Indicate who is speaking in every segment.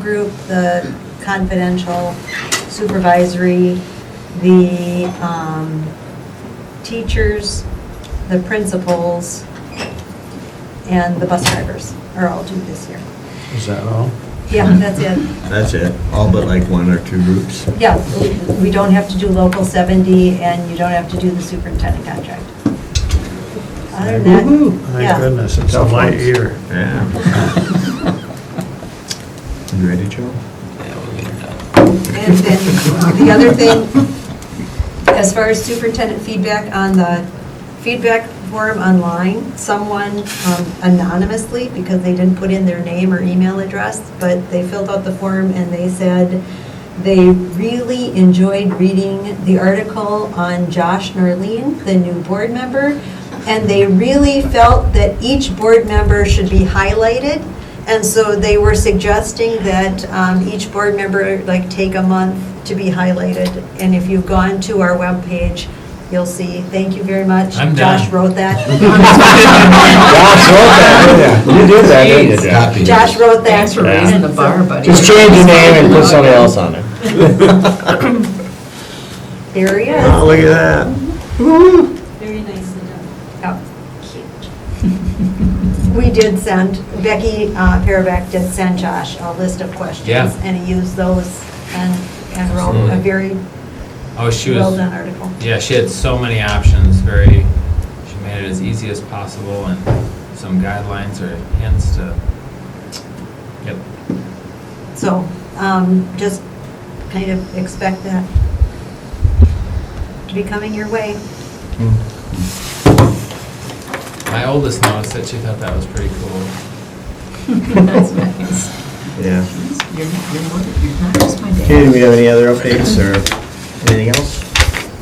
Speaker 1: group, the confidential supervisory, the um, teachers, the principals, and the bus drivers are all due this year.
Speaker 2: Is that all?
Speaker 1: Yeah, that's it.
Speaker 3: That's it, all but like one or two groups?
Speaker 1: Yeah, we- we don't have to do local 70, and you don't have to do the superintendent contract. Other than that,
Speaker 2: Thank
Speaker 1: yeah.
Speaker 2: goodness, it's on my ear.
Speaker 3: Yeah. You ready, Joe?
Speaker 1: And then the other thing, as far as superintendent feedback on the feedback form online, someone um, anonymously, because they didn't put in their name or email address, but they filled out the form and they said they really enjoyed reading the article on Josh Norline, the new board member, and they really felt that each board member should be highlighted and so they were suggesting that um, each board member, like, take a month to be highlighted. And if you've gone to our webpage, you'll see, thank you very much.
Speaker 4: I'm
Speaker 1: Josh
Speaker 4: done.
Speaker 1: wrote that.
Speaker 2: Josh wrote that, didn't you? You did that, didn't you?
Speaker 3: Copy.
Speaker 1: Josh wrote that.
Speaker 5: Thanks for raising the bar, buddy.
Speaker 6: Just change your name and put something else on it.
Speaker 1: There he
Speaker 2: Oh,
Speaker 1: is.
Speaker 2: Look at that.
Speaker 7: Very nicely done.
Speaker 1: Oh, cute. We did send, Becky uh, Paraback did send Josh a list of questions.
Speaker 4: Yeah.
Speaker 1: And he used those and and wrote a
Speaker 4: Absolutely.
Speaker 1: very
Speaker 4: Oh, she
Speaker 1: well-done
Speaker 4: was,
Speaker 1: article.
Speaker 4: yeah, she had so many options, very, she made it as easy as possible and some guidelines or hints to, yep.
Speaker 1: So um, just kind of expect that to be coming your way.
Speaker 3: Hmm.
Speaker 4: My oldest notes that she thought that was pretty cool.
Speaker 5: That's nice.
Speaker 3: Yeah.
Speaker 5: You're, you're more, you're not just my dad.
Speaker 3: Okay, do we have any other updates or anything else?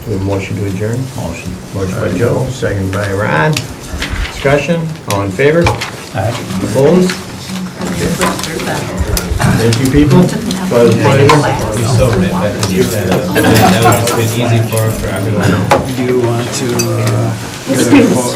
Speaker 3: Do we have a motion to adjourn? Motion. Motion by Uh, Joe, second by Ron. Discussion, all in favor? Opposed? Thank you, people. Well, it's funny.
Speaker 4: That was an easy for, for everyone.
Speaker 2: Do you want to uh, get a quote